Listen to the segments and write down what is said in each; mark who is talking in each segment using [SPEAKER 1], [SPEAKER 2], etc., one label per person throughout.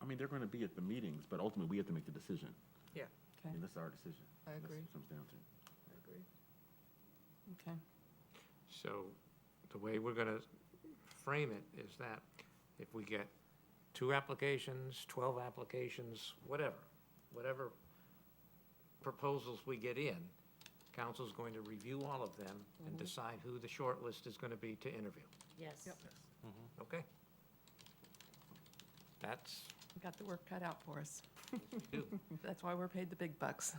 [SPEAKER 1] I mean, they're going to be at the meetings, but ultimately, we have to make the decision.
[SPEAKER 2] Yeah.
[SPEAKER 1] I mean, that's our decision.
[SPEAKER 2] I
[SPEAKER 1] That's
[SPEAKER 2] agree.
[SPEAKER 1] what it comes down to.
[SPEAKER 2] I agree.
[SPEAKER 3] Okay.
[SPEAKER 4] So the way we're gonna frame it is that if we get two applications, twelve applications, whatever, whatever proposals we get in, council's going to review all of them and decide who the short list is gonna be to interview,
[SPEAKER 5] Yes.
[SPEAKER 4] okay? That's,
[SPEAKER 3] We got the work cut out for us.
[SPEAKER 4] do.
[SPEAKER 3] That's why we're paid the big bucks.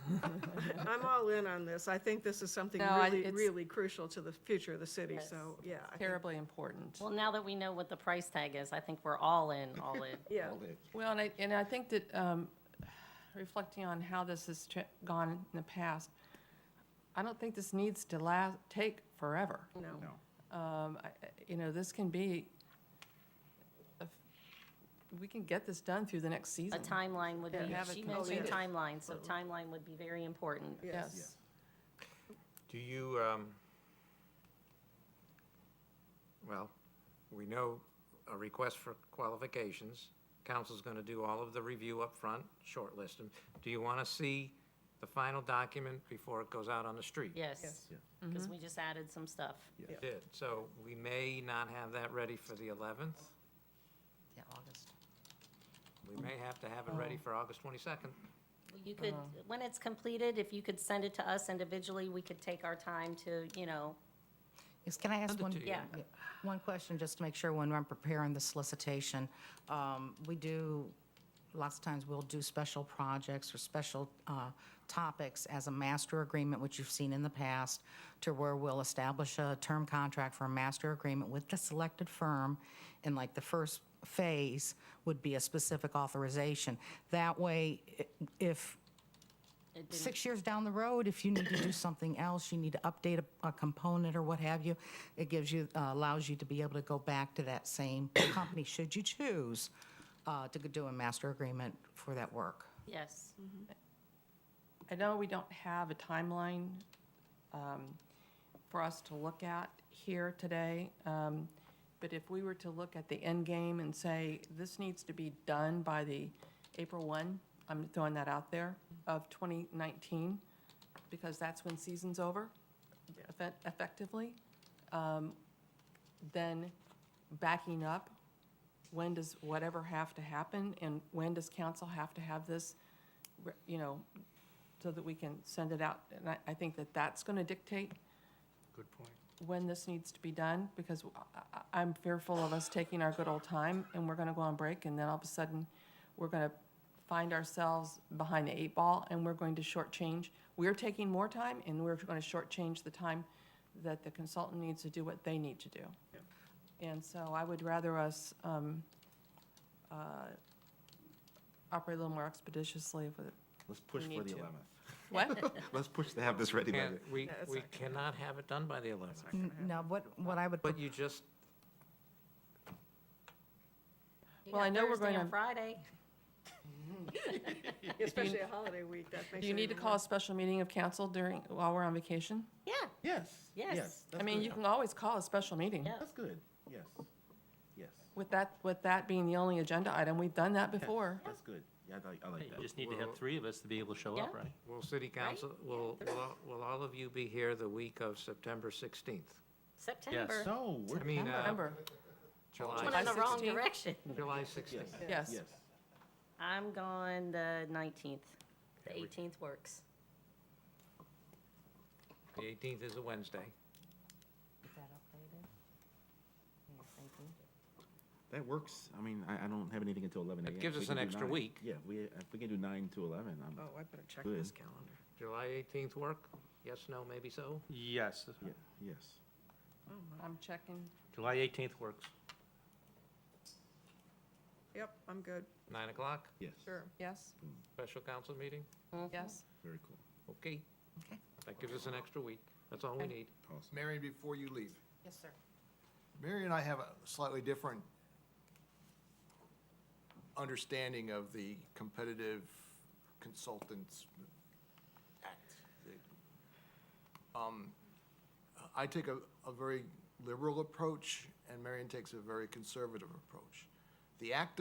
[SPEAKER 2] I'm all in on this. I think this is something
[SPEAKER 3] No, I-
[SPEAKER 2] really,
[SPEAKER 3] it's-
[SPEAKER 2] really crucial to the future of the city,
[SPEAKER 5] Yes.
[SPEAKER 2] so, yeah. I think-
[SPEAKER 3] Terribly important.
[SPEAKER 5] Well, now that we know what the price tag is, I think we're all in, all in.
[SPEAKER 2] Yeah,
[SPEAKER 3] Well, and I, and I think that, um, reflecting on how this has tra- gone in the past, I don't think this needs to last, take forever.
[SPEAKER 2] no.
[SPEAKER 1] No.
[SPEAKER 3] Um, I- I- you know, this can be, a f- we can get this done through the next
[SPEAKER 5] A
[SPEAKER 3] season.
[SPEAKER 5] timeline would
[SPEAKER 3] Yeah.
[SPEAKER 5] be,
[SPEAKER 3] Have it
[SPEAKER 5] she
[SPEAKER 3] completed.
[SPEAKER 5] mentioned timeline, so timeline would be very important.
[SPEAKER 2] Yes.
[SPEAKER 4] Do you, um, well, we know a request for qualifications. Council's gonna do all of the review up front, shortlist them. Do you wanna see the final document before it goes out on the street?
[SPEAKER 5] Yes,
[SPEAKER 1] Yeah.
[SPEAKER 5] because we just added some stuff.
[SPEAKER 4] We Did, so we may not have that ready for the eleventh.
[SPEAKER 3] Yeah, August.
[SPEAKER 4] We may have to have it ready for August twenty-second.
[SPEAKER 5] You could,
[SPEAKER 3] Uh-huh.
[SPEAKER 5] when it's completed, if you could send it to us individually, we could take our time to, you know,
[SPEAKER 6] Yes, can I ask
[SPEAKER 4] Under
[SPEAKER 6] one?
[SPEAKER 4] two,
[SPEAKER 5] yeah.
[SPEAKER 6] yeah, One question, just to make sure when I'm preparing the solicitation. Um, We do, lots of times we'll do special projects or special uh, topics as a master agreement, which you've seen in the past, to where we'll establish a term contract for a master agreement with the selected firm. And like the first phase would be a specific authorization. That way, i- if
[SPEAKER 5] it didn't-
[SPEAKER 6] six years down the road, if you need to do something else, you need to update a, a component or what have you, it gives you, uh, allows you to be able to go back to that same company, should you choose, uh, to do a master agreement for that work.
[SPEAKER 5] yes.
[SPEAKER 3] I know we don't have a timeline um, for us to look at here today, um, but if we were to look at the end game and say, this needs to be done by the April 1, I'm throwing that out there, of 2019, because that's when season's over, effe- effectively, um, then backing up, when does whatever have to happen, and when does council have to have this, re- you know, so that we can send it out. And I, I think that that's going to dictate
[SPEAKER 4] Good point.
[SPEAKER 3] when this needs to be done, because I- I- I'm fearful of us taking our good old time, and we're going to go on break, and then all of a sudden, we're going to find ourselves behind the eight ball, and we're going to shortchange. We're taking more time, and we're going to shortchange the time that the consultant needs to do what they need to do. And so I would rather us um, uh, operate a little more expeditiously with,
[SPEAKER 1] Let's push
[SPEAKER 3] We
[SPEAKER 1] for the
[SPEAKER 3] need to.
[SPEAKER 1] 11th.
[SPEAKER 3] what?
[SPEAKER 1] Let's push to have this ready by the.
[SPEAKER 4] we,
[SPEAKER 2] No, it's
[SPEAKER 4] we
[SPEAKER 2] not gonna
[SPEAKER 4] cannot have it done by the eleventh.
[SPEAKER 6] Now, what, what I would,
[SPEAKER 4] But you just,
[SPEAKER 5] You
[SPEAKER 3] Well, I
[SPEAKER 5] got
[SPEAKER 3] know we're
[SPEAKER 5] Thursday and
[SPEAKER 3] gonna-
[SPEAKER 5] Friday.
[SPEAKER 2] Especially a holiday week, that makes it.
[SPEAKER 3] Do you need to
[SPEAKER 2] even
[SPEAKER 3] call a special meeting of council during, while we're on vacation?
[SPEAKER 5] Yeah,
[SPEAKER 1] Yes.
[SPEAKER 5] Yes.
[SPEAKER 1] that's
[SPEAKER 3] I mean,
[SPEAKER 1] good.
[SPEAKER 3] you can always call a special meeting.
[SPEAKER 5] Yeah.
[SPEAKER 1] That's good. Yes. Yes.
[SPEAKER 3] With that, with that being the only agenda item, we've done that
[SPEAKER 1] Yes.
[SPEAKER 3] before.
[SPEAKER 1] That's good. Yeah, I like, I like
[SPEAKER 7] You
[SPEAKER 1] that.
[SPEAKER 7] just need to have three of us to be able to show up,
[SPEAKER 5] Yeah.
[SPEAKER 7] right?
[SPEAKER 4] will city council, will, will all- will all of you be here the week of September sixteenth?
[SPEAKER 5] September.
[SPEAKER 1] So,
[SPEAKER 4] I
[SPEAKER 1] we're,
[SPEAKER 4] mean, uh,
[SPEAKER 3] Remember,
[SPEAKER 4] July.
[SPEAKER 5] Went in the wrong
[SPEAKER 3] 16th?
[SPEAKER 5] direction.
[SPEAKER 4] July 16th.
[SPEAKER 1] yes.
[SPEAKER 3] yes.
[SPEAKER 1] Yes.
[SPEAKER 5] I'm gone the nineteenth. The
[SPEAKER 4] Okay, we-
[SPEAKER 5] eighteenth works.
[SPEAKER 4] The 18th is a Wednesday.
[SPEAKER 1] That works. I mean, I, I don't have anything until eleven AM.
[SPEAKER 4] That gives
[SPEAKER 1] We
[SPEAKER 4] us
[SPEAKER 1] can
[SPEAKER 4] an
[SPEAKER 1] do
[SPEAKER 4] extra
[SPEAKER 1] nine.
[SPEAKER 4] week.
[SPEAKER 1] Yeah, we, if we can do nine to eleven, I'm,
[SPEAKER 2] Oh, I better check this calendar.
[SPEAKER 4] July 18th work? Yes, no, maybe so?
[SPEAKER 7] Yes,
[SPEAKER 1] yeah, yes.
[SPEAKER 3] I'm checking.
[SPEAKER 7] July 18th works.
[SPEAKER 2] Yep, I'm good,
[SPEAKER 4] 9 o'clock,
[SPEAKER 1] Yes.
[SPEAKER 2] sure.
[SPEAKER 3] Yes,
[SPEAKER 4] special council meeting?
[SPEAKER 3] yes.
[SPEAKER 1] Very cool.
[SPEAKER 4] Okay. That gives us an extra week. That's all we need.
[SPEAKER 1] Awesome.
[SPEAKER 8] Marion, before you leave,
[SPEAKER 6] yes, sir.
[SPEAKER 8] Mary and I have a slightly different understanding of the Competitive Consultants Act. Um, I take a, a very liberal approach, and Marion takes a very conservative approach. The act